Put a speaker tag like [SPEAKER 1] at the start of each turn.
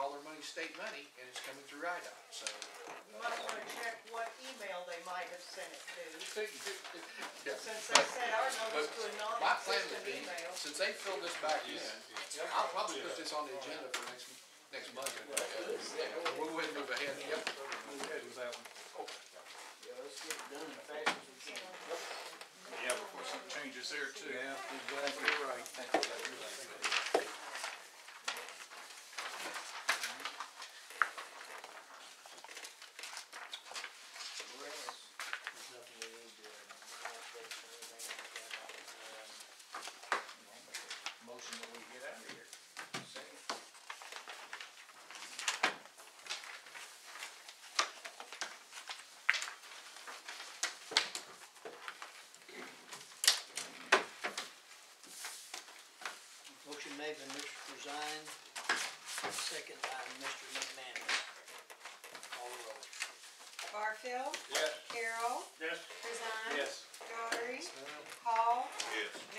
[SPEAKER 1] all their money's state money, and it's coming through IDOT, so.
[SPEAKER 2] You might wanna check what email they might have sent it to,
[SPEAKER 1] Yeah.
[SPEAKER 2] since they sent our notice to a
[SPEAKER 1] But My plan would be,
[SPEAKER 2] non-existent email.
[SPEAKER 1] since they fill this back in, I'll probably put this on the agenda for next, next month. We'll go ahead and move ahead, yep.
[SPEAKER 3] Yeah, let's get it done as fast as we can.
[SPEAKER 4] Yeah, before some changes there too.
[SPEAKER 3] Yeah, exactly right. Where else? There's nothing we need to, uh, update or anything like that. Um, Motion that we get out of here. Second. Motion made by Mr. Corzine, second by Mr. McManus. Call the roll.
[SPEAKER 5] Barfield.
[SPEAKER 4] Yes.
[SPEAKER 5] Carroll.
[SPEAKER 4] Yes.
[SPEAKER 5] Corzine.
[SPEAKER 4] Yes.
[SPEAKER 5] Daughtry. Hall.
[SPEAKER 4] Yes.